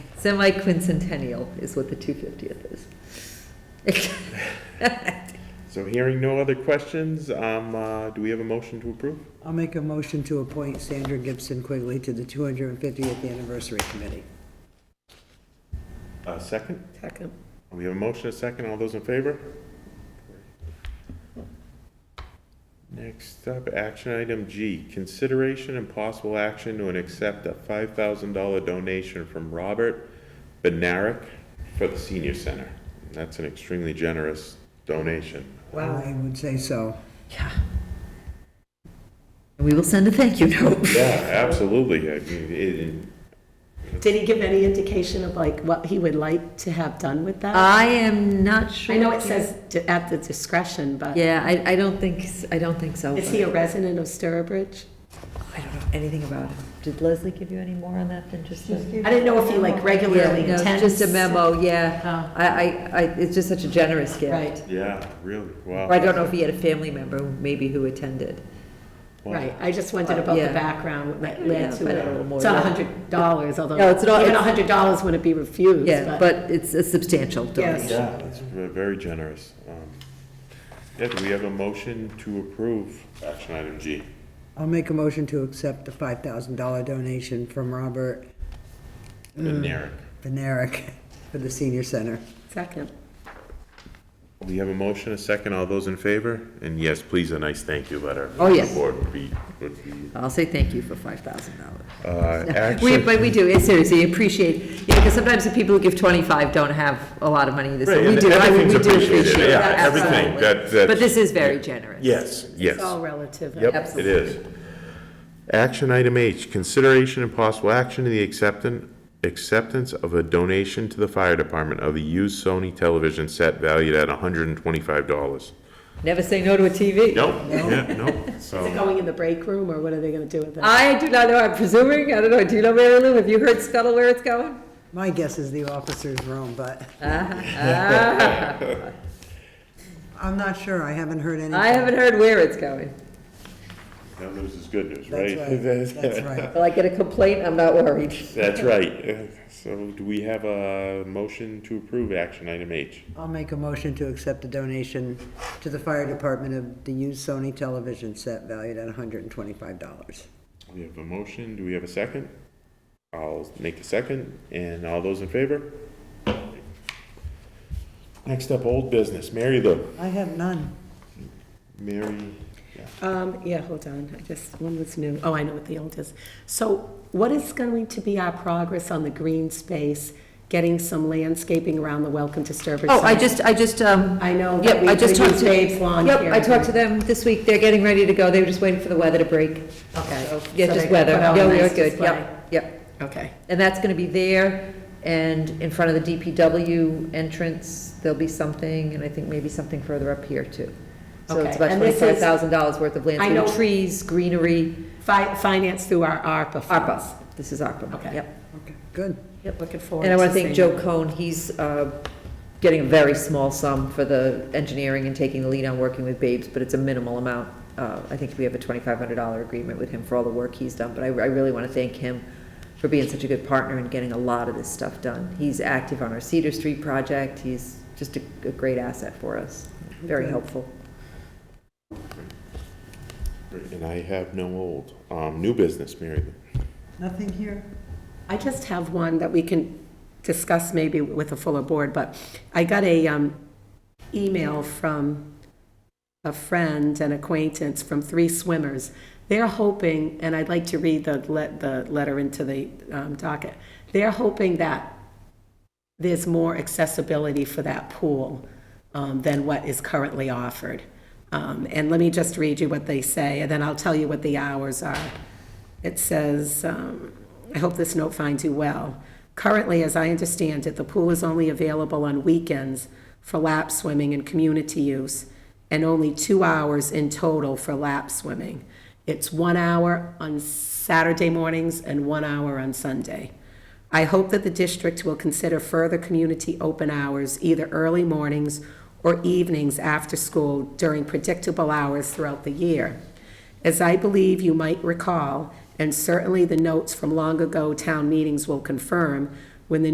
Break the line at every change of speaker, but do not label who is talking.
Semi-quincentennial is what the 250th is.
So hearing no other questions, um, uh, do we have a motion to approve?
I'll make a motion to appoint Sandra Gibson Quigley to the 250th Anniversary Committee.
A second?
Second.
Uh, We have a motion, a second. All those in favor? Next up, action item G, consideration and possible action to accept a five thousand dollar donation from Robert Benarek for the senior center. That's an extremely generous donation.
Wow. I would say so.
Yeah. And we will send a thank you note.
Yeah, absolutely. I mean, it-
Did he give any indication of like what he would like to have done with that?
I am not sure.
I know it says di- at the discretion, but
Yeah, I, I don't think, s- I don't think so.
is
but
he a resident of Sturbridge?
I don't know anything about it. Did Leslie give you any more on that than just the?
I didn't know if he like regularly
Yeah, no,
attends.
Just a memo, yeah.
Oh.
I, I, I, it's just such a generous gift.
Right,
Yeah, really, wow.
Or I don't know if he had a family member maybe who attended.
Wow.
right. I just wondered about
Uh, Yeah.
the background that
Yeah,
led to
but a little
it.
more
It's not a
than-
hundred dollars, although
No, it's not-
even a
it's-
hundred dollars wouldn't be refused,
Yeah,
but
but it's a substantial
Yes.
donation.
Yeah, that's ve- very generous. Um, Yeah, do we have a motion to approve action item G?
I'll make a motion to accept the $5,000 donation from Robert
Mm.
Benarek.
Benarek for the senior center.
second.
We have a motion, a second, all those in favor? And yes, please, a nice thank you letter.
Oh, yes.
The board would be, would be,
I'll say thank you for five thousand dollars.
uh,
We,
action.
but we do, it's seriously, appreciate, you know, because sometimes the people who give twenty-five don't have a lot of money either. So
Right,
we
and
do, I mean,
everything's
we do
appreciated,
appreciate
yeah,
that,
everything,
absolutely.
that- that's-
But this is very generous.
Yes, yes.
It's all relative.
Yep, it
Absolutely.
is. Action item H, consideration and possible action to the acceptance, acceptance of a donation to the fire department of a used Sony television set valued at hundred and twenty-five dollars.
Never say no to a TV.
Nope, yeah, nope,
Is it
so.
going in the break room or what are they gonna do with that?
I do not know, I'm presuming, I don't know, do you know, Mary Lou, have you heard scuttle where it's going?
My guess is the officer's room, but I'm not sure. I haven't heard anything.
I haven't heard where it's going.
No news is good news,
That's right, that's right.
Well, I get a complaint, I'm not worried.
That's right. So do we have a motion to approve action item H?
I'll make a motion to accept a donation to the fire department of the used Sony television set valued at $125.
We have a motion. Do we have a second? I'll make a second. And all those in favor? Next up, old business. Mary Lou.
I have none.
Mary.
Um, yeah, hold on, I just, one was new, oh, I know what the old is. So what is going to be our progress on the green space, getting some landscaping around the Welcome to Sturbridge?
Oh, I
sign?
just, I just, um.
I know that
Yep,
we-
I just
we
talked
use
to.
Dave's lawn
Yep,
care.
I talked to them this week, they're getting ready to go, they were just waiting for the weather to break.
Okay.
So,
So
Yeah,
they
just
can
weather,
put out a
yeah, we are
nice
good,
display.
yep, yep.
Okay,
And that's gonna be there, and in front of the DPW entrance, there'll be something, and I think maybe something further up here too. So it's
Okay,
about
and this is-
twenty-five thousand dollars worth of
know-
landscaping, trees, greenery,
Fi- finance through our ARPA
ARPA,
funds.
this is ARPA,
Okay.
yep.
Okay, good.
Yep, looking forward to
And I
seeing.
want to thank Joe Cohn, he's uh, getting a very small sum for the engineering and taking the lead on working with Babes, but it's a minimal amount. Uh, I think we have a $2,500 agreement with him for all the work he's done, but I I really want to thank him for being such a good partner and getting a lot of this stuff done. He's active on our Cedar Street project, he's just a a great asset for us, very
Okay.
helpful.
And I have no old. Um, new business, Mary Lou.
Nothing here?
I just have one that we can discuss maybe with a fuller board, but I got a um, email from a friend and acquaintance from three swimmers. They're hoping, and I'd like to read the, le- the letter into the um, docket. They're hoping that there's more accessibility for that pool um, than what is currently offered. Um, And let me just read you what they say, and then I'll tell you what the hours are. It says, um, I hope this note finds you well. Currently, as I understand it, the pool is only available on weekends for lap swimming and community use, and only two hours in total for lap swimming. It's one hour on Saturday mornings and one hour on Sunday. I hope that the district will consider further community open hours, either early mornings or evenings after school during predictable hours throughout the year. As I believe you might recall, and certainly the notes from long ago town meetings will confirm,